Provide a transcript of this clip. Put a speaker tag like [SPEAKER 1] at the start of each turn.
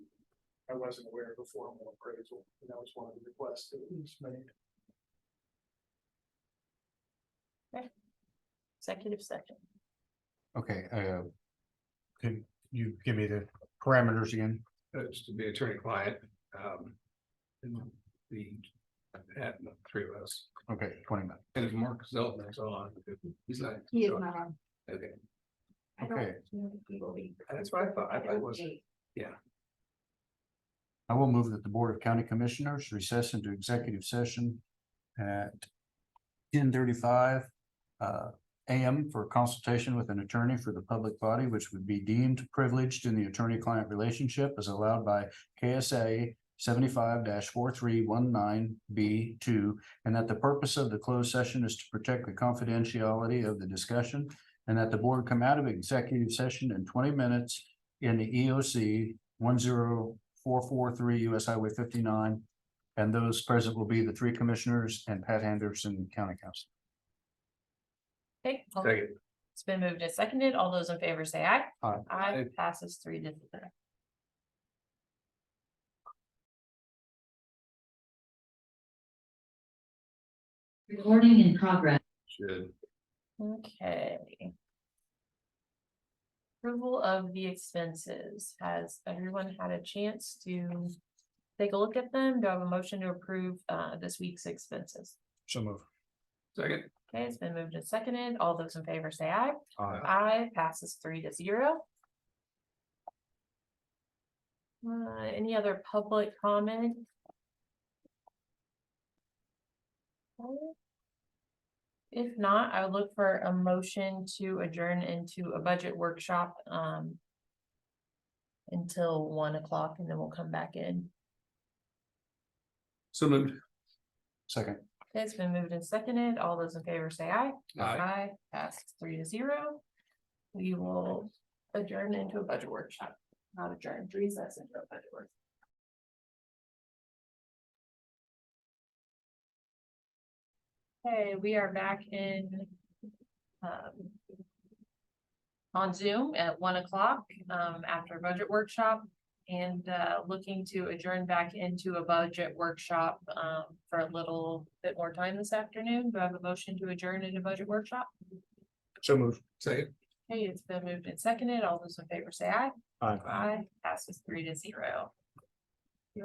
[SPEAKER 1] I wasn't aware of the formal appraisal, and that was one of the requests that was made.
[SPEAKER 2] executive session.
[SPEAKER 3] Okay, uh. Can you give me the parameters again?
[SPEAKER 4] It's Uh, to be attorney client, um. and The, at the three of us,
[SPEAKER 3] Okay, twenty minutes.
[SPEAKER 4] and if Mark Zeltman's on, he's not.
[SPEAKER 5] He is not on.
[SPEAKER 4] Okay,
[SPEAKER 5] I don't
[SPEAKER 3] Okay.
[SPEAKER 5] know if he will be.
[SPEAKER 4] that's what I thought, I thought it was,
[SPEAKER 3] I will move that the Board of County Commissioners recess into executive session at ten thirty-five uh AM for consultation with an attorney for the public body, which would be deemed privileged in the attorney-client relationship as allowed by KSA seventy-five four three one nine B two, and that the purpose of the closed session is to protect the confidentiality of the discussion, and that the board come out of executive session in twenty minutes in the EOC one zero four four three US Highway fifty-nine. And those present will be the three commissioners and Pat Anderson, county council.
[SPEAKER 2] Okay, all-
[SPEAKER 4] second.
[SPEAKER 2] it's been moved and seconded. All those in favor say aye.
[SPEAKER 3] Aye.
[SPEAKER 2] Aye
[SPEAKER 4] Aye.
[SPEAKER 2] passes three to zero.
[SPEAKER 5] Recording in progress.
[SPEAKER 4] Should.
[SPEAKER 2] Okay. Approval of the expenses. Has everyone had a chance to take a look at them? Do I have a motion to approve uh this week's expenses?
[SPEAKER 3] So move.
[SPEAKER 4] Second.
[SPEAKER 2] Okay, it's been moved and seconded. All those in favor say aye.
[SPEAKER 4] Aye.
[SPEAKER 2] Aye passes three to zero. Uh, any other public comment? If not, I would look for a motion to adjourn into a budget workshop, um. Until one o'clock and then we'll come back in.
[SPEAKER 4] So moved.
[SPEAKER 3] Second.
[SPEAKER 2] Okay, It's been moved and seconded. All those in favor say aye.
[SPEAKER 4] Aye.
[SPEAKER 2] Aye, passes three to zero. We will adjourn into a budget workshop, not adjourn, recess into a budget workshop. Okay, we are back in um, on Zoom at one o'clock um, after budget workshop and uh, looking to adjourn back into a budget workshop um, for a little bit more time this afternoon. Do I have a motion to adjourn into budget workshop?
[SPEAKER 3] So move.
[SPEAKER 4] Second.
[SPEAKER 2] Okay, it's been moved and seconded. All those in favor say aye.
[SPEAKER 3] Aye.
[SPEAKER 2] Aye, passes three to zero.